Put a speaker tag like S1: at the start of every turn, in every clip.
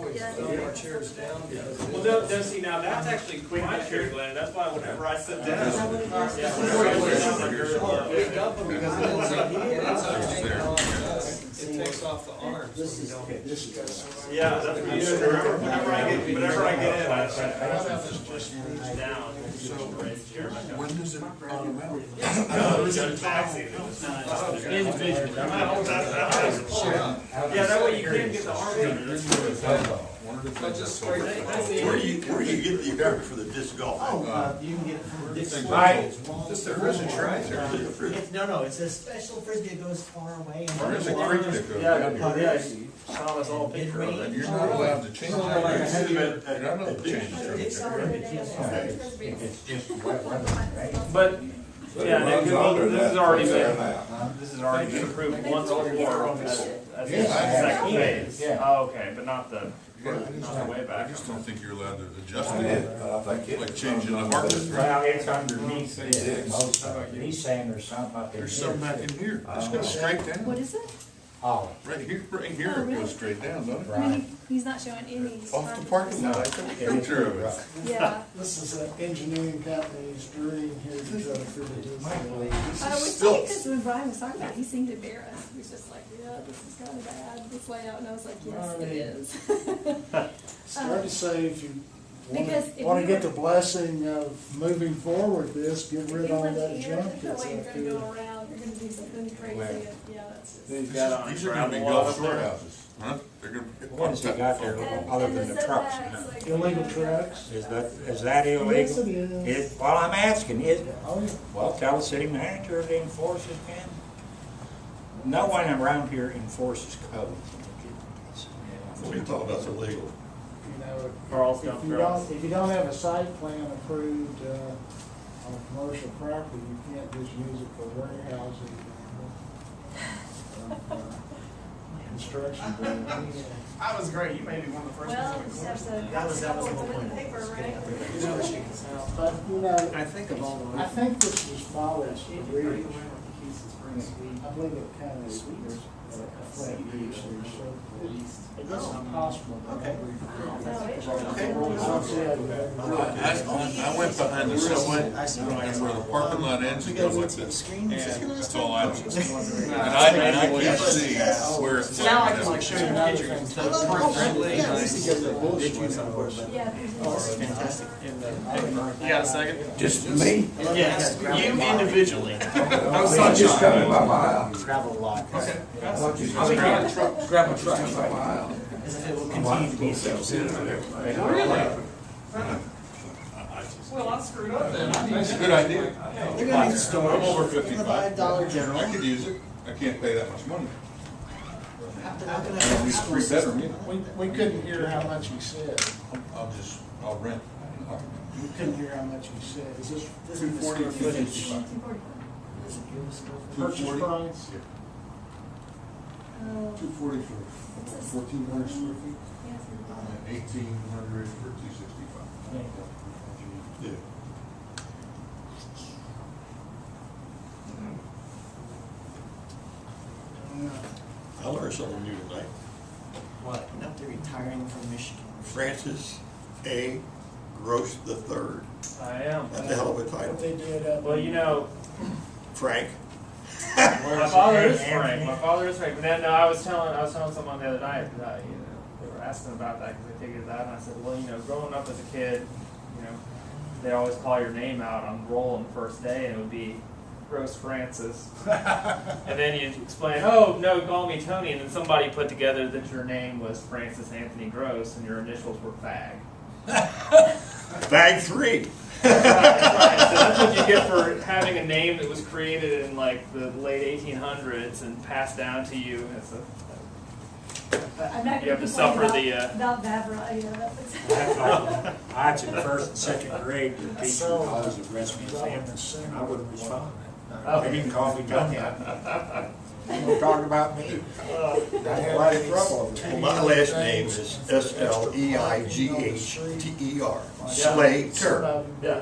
S1: Our chairs down.
S2: Well, no, no, see, now that's actually quite my chair, Glenn, that's why whenever I sit down. Yeah, whenever I sit down, like, you're-
S1: Pick up them because it ends up, it ends up hanging on us. It takes off the arms.
S3: This is, okay, this is.
S2: Yeah, that's what you do, whenever, whenever I get, whenever I get in, I, I sit down.
S4: When does it bottom out?
S2: No, it's a taxi, it's not.
S1: Oh,
S2: Yeah, that way you can get the arm under it.
S1: I just scraped it.
S5: Where do you, where do you get the yard for the disc golf?
S3: Oh, uh, you can get it from this.
S4: Right.
S1: Just a prison right there.
S5: There's a fridge.
S3: It's, no, no, it's a special frisbee that goes far away. and-
S4: There's a creek that goes down
S2: Yeah,
S4: here.
S2: yeah, you saw us all
S3: It
S2: picture of it.
S4: And
S3: rains.
S4: you're not allowed to change
S5: You
S4: it.
S5: sit him at-
S4: You're not allowed
S5: at-
S4: to change
S5: at-
S4: it.
S6: It's just wet weather,
S2: But,
S6: right?
S4: But it
S2: yeah, they
S4: runs
S2: could-
S4: under
S2: this
S4: that
S2: has already
S4: fence
S2: been,
S4: there now.
S2: this has already been approved once before as, as the
S6: Yes, I have.
S2: second phase.
S6: Yeah.
S2: Oh, okay, but not the,
S4: Yeah, I just-
S2: not the way
S4: I
S2: back.
S4: just don't think you're allowed to adjust
S6: I
S4: it.
S6: did, but I think it
S4: Like
S6: was
S4: changing the
S6: under-
S4: harvest rate.
S6: Well, it's underneath this, most of it. He's saying there's something up in here.
S4: There's some back in here. It's
S6: Oh.
S4: goes straight down.
S7: What is it?
S6: Oh,
S4: Right here, right here, it goes straight down, doesn't it?
S7: I mean,
S6: right.
S7: he- he's not showing any.
S4: Off the parking lot, I took a picture of it.
S7: Yeah.
S8: This is an engineering company's dream here to try to figure this
S7: I
S8: out.
S7: was saying, because when Brian was talking about it, he seemed embarrassed. He was just like, yeah, this is kind of bad, this layout. And I was like, yes, it is.
S8: Start to say if you
S7: Because if
S8: want
S7: we
S8: to get
S7: were-
S8: the blessing of moving forward this, get
S7: If you
S8: rid of all
S7: live
S8: that
S7: here,
S8: junk
S7: no
S8: that's
S7: way You're
S8: out
S7: going to
S8: there.
S7: go around, you're going to do something crazy. Yeah, that's just.
S2: He's got on
S4: These are gonna be
S2: gravel up
S4: golf
S2: there.
S4: storehouses, huh? They're gonna. be-
S6: What has he got there other
S7: And- and
S6: than the trucks?
S7: setbacks, like,
S8: Illegal
S7: yeah.
S8: trucks?
S6: Is that, is that
S8: Yes, it
S6: illegal?
S8: is.
S6: Is, well, I'm asking, is,
S8: Oh,
S6: well, tell the city manager to enforce it then. No one around here enforces code.
S5: What are you talking about,
S8: you
S5: illegal?
S8: know,
S2: Carl's
S8: if
S2: got
S8: you
S2: girls.
S8: don't, if you don't have a site plan approved, uh, on a commercial property, you can't just use it for warehousing. and, uh, Construction. buildings.
S2: That was great, you may be one of the
S7: Well, just have to.
S3: That was- that was
S7: Put it
S3: the
S7: in
S3: whole
S7: the
S3: point.
S7: paper, right?
S8: But, you know,
S3: I think of all
S8: I think this was followed for reading. I believe it kind of sweet, a flat beach there, so it doesn't possible. Okay.
S7: No, it's just-
S4: I, I I went behind the subway, and where the parking lot ends, it goes like this. And that's all I do. And I, and I can't see where it's.
S3: Now I can like show you pictures.
S7: Yeah. Fantastic.
S2: You got a second?
S6: Just me?
S2: Yes, you individually.
S6: No sunshine. Just coming by my house. Gravel lot. Okay. Grab a truck. Grab a truck.
S3: As if it will continue to be so.
S2: Well, I screwed up then.
S4: That's a good idea.
S3: They're gonna need storage.
S4: I'm over
S3: They're gonna buy a
S4: 55.
S3: Dollar General.
S4: I could use it. I can't pay that much money.
S3: How can I-
S4: It'd be three bedroom, you
S8: We,
S4: know.
S8: we couldn't hear how much he said.
S4: I'll just, I'll rent.
S8: We couldn't hear how much he said. Is this
S3: This is the square footage.
S4: Two
S8: purchase
S4: forty?
S8: price?
S4: Two forty for fourteen hundred square feet? Eighteen hundred for two sixty-five.
S5: Yeah. I learned something new tonight.
S3: What? Now they're retiring from Michigan.
S5: Francis A. Gross the Third.
S2: I am.
S5: That's a hell of a
S8: What
S5: title.
S8: they did uh, up.
S2: Well, you know,
S5: Frank,
S2: my father is Frank, my father is Frank, but then, no, I was telling, I was telling someone the other night, that, uh, you know, they were asking about that, cause they figured that, and I said, well, you know, growing up as a kid, you know, they always call your name out on roll on the first day, and it would be Rose Francis. And then you explain, oh, no, call me Tony, and then somebody put together that your name was Francis Anthony Gross, and your initials were fag.
S5: bag three.
S2: Right, so that's what you get for having a name that was created in like the late 1800s and passed down to you as a.
S7: I'm not
S2: You have to
S7: gonna
S2: suffer
S7: complain
S2: the, uh,
S7: about, about Vavra, you know, that's.
S6: That's all. I was in first and second grade, the teacher always addressed me as Anderson, and I wouldn't respond. They didn't call me Tony. They were talking about me.
S3: I had a lot of trouble over there.
S5: Well, my last name is S L E I G H T E R, Slater.
S2: Yeah.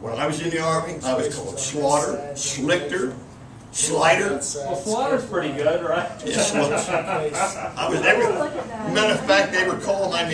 S5: When I was in the army, I was called Slaughter, Slichter, Slider.
S2: Well, Slaughter's pretty good, right?
S5: Yeah, Slaughter.
S8: good.
S5: I was every,
S7: Look at that.
S5: matter of fact, they were calling my name